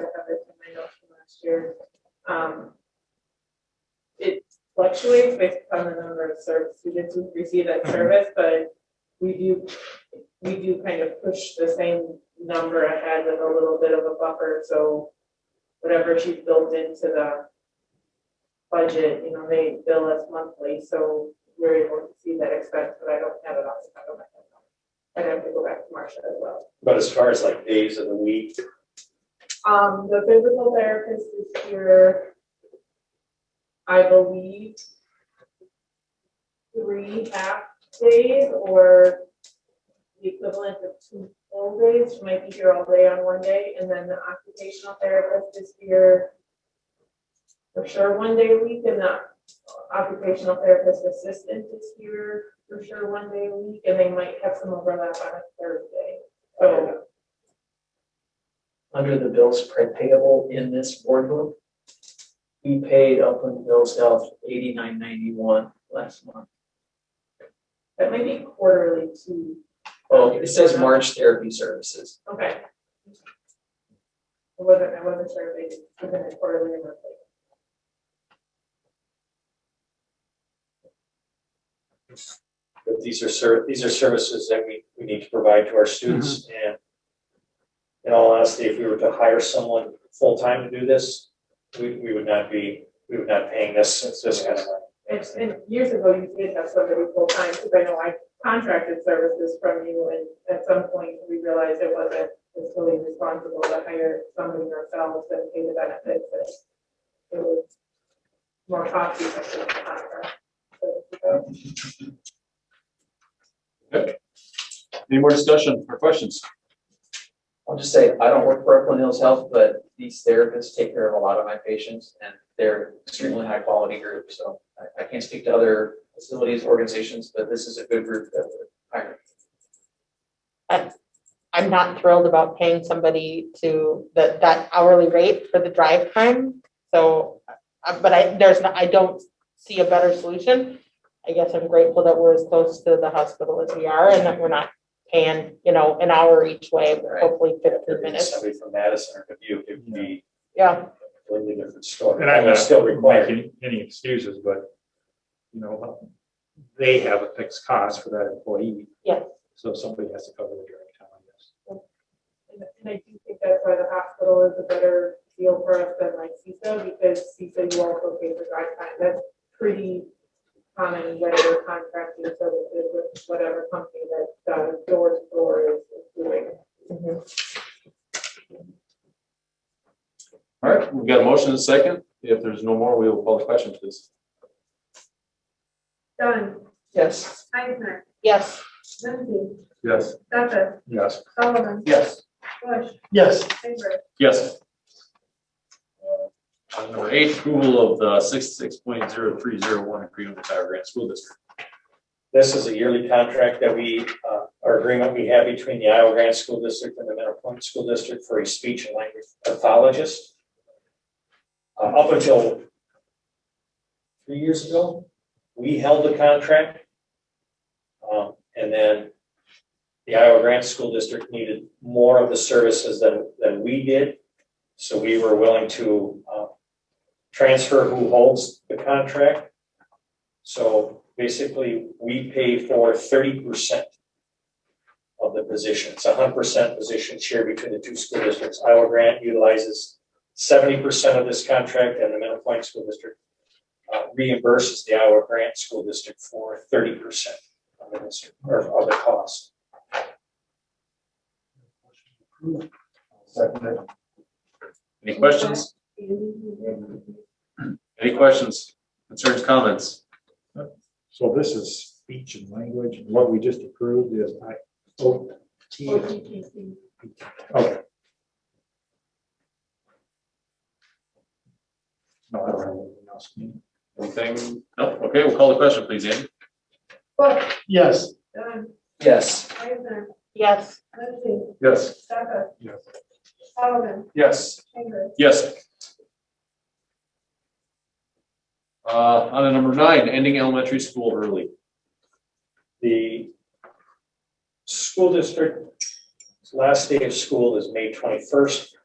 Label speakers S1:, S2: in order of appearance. S1: I have it in my notes from last year. Um, It fluctuates based on the number of served students who receive that service, but we do, we do kind of push the same number ahead with a little bit of a buffer, so whatever she's built into the budget, you know, they bill us monthly, so we're able to see that expense, but I don't have it off the top of my head. I'd have to go back to Marcia as well.
S2: But as far as like days of the week,
S1: Um, the physical therapist is here, I believe, three half days or the equivalent of two full days, she might be here all day on one day, and then the occupational therapist is here for sure one day a week, and the occupational therapist assistant is here for sure one day a week, and they might have some overlap on a third day. So
S3: under the bills payable in this board book. We paid Upland Hills Health eighty-nine ninety-one last month.
S1: that might be quarterly too.
S3: Oh, it says March Therapy Services.
S1: Okay. I wasn't, I wasn't sure if they did it quarterly or monthly.
S2: but these are ser, these are services that we, we need to provide to our students
S4: Mm-hmm.
S2: and in all honesty, if we were to hire someone full-time to do this, we, we would not be, we would not paying this, this kind of money.
S1: And, and years ago, you did have somebody full-time, because I know I contracted services from you, and at some point, we realized it wasn't fully responsible to hire somebody ourselves and pay the benefits, but it was more costly than the contract. So, so,
S4: Any more discussion or questions?
S3: I'll just say, I don't work for Upland Hills Health, but these therapists take care of a lot of my patients and they're extremely high quality group, so I, I can't speak to other facilities, organizations, but this is a good group that we're hiring.
S5: I'm not thrilled about paying somebody to that, that hourly rate for the drive time. So, uh, but I, there's, no- I don't see a better solution. I guess I'm grateful that we're as close to the hospital as we are and that we're not paying, you know, an hour each way, but
S3: Right.
S5: hopefully fifteen minutes.
S2: Somebody from Madison or Dubuque, it would be
S5: Yeah,
S2: a completely different story.
S6: And I'm
S2: Although
S6: not
S2: Still required.
S6: making any excuses, but, you know, they have a fixed cost for that employee.
S5: Yeah.
S6: So somebody has to cover the direct time, I guess.
S1: And and I do think that's why the hospital is a better deal for us than like CISA, because CISA, you also pay for drive time, that's pretty common, whether contracting services with whatever company that does door to door is doing.
S4: All right, we've got a motion and a second. If there's no more, we will call the question, please.
S1: Dunn,
S3: Yes.
S1: Eisner,
S5: yes,
S1: Lindsay,
S6: Yes.
S1: Stefan,
S6: Yes.
S1: Solomon,
S3: Yes.
S1: Bush,
S6: Yes.
S1: Faber.
S4: Yes. Item number eight, approval of the sixty-six point zero three zero one agreement with Iowa Grant School District.
S2: This is a yearly contract that we, uh, our agreement we have between the Iowa Grant School District and the Mentor Point School District for a speech and language pathologist. Uh, Up until three years ago, we held the contract. Um, And then the Iowa Grant School District needed more of the services than, than we did. So we were willing to uh, transfer who holds the contract. So basically, we pay for thirty percent of the position. It's a hundred percent position share between the two school districts. Iowa Grant utilizes seventy percent of this contract and the Middle Point School District uh, reimburses the Iowa Grant School District for thirty percent of the district, or of the cost.
S4: Any questions? Any questions, concerns, comments?
S6: So this is speech and language, and what we just approved is I, O T.
S1: OTTC.
S6: Okay. No, I don't have anything else.
S4: Anything? No? Okay, we'll call the question, please, Andy.
S1: Bush,
S6: Yes.
S1: Dunn,
S3: Yes.
S1: Eisner,
S5: yes,
S1: um, Lindsay,
S4: Yes.
S1: Stefan,
S6: Yes.
S1: Solomon,
S4: Yes.
S1: Faber.
S4: Yes. Uh, on to number nine, ending elementary school early.
S2: The school district, last day of school is May twenty-first.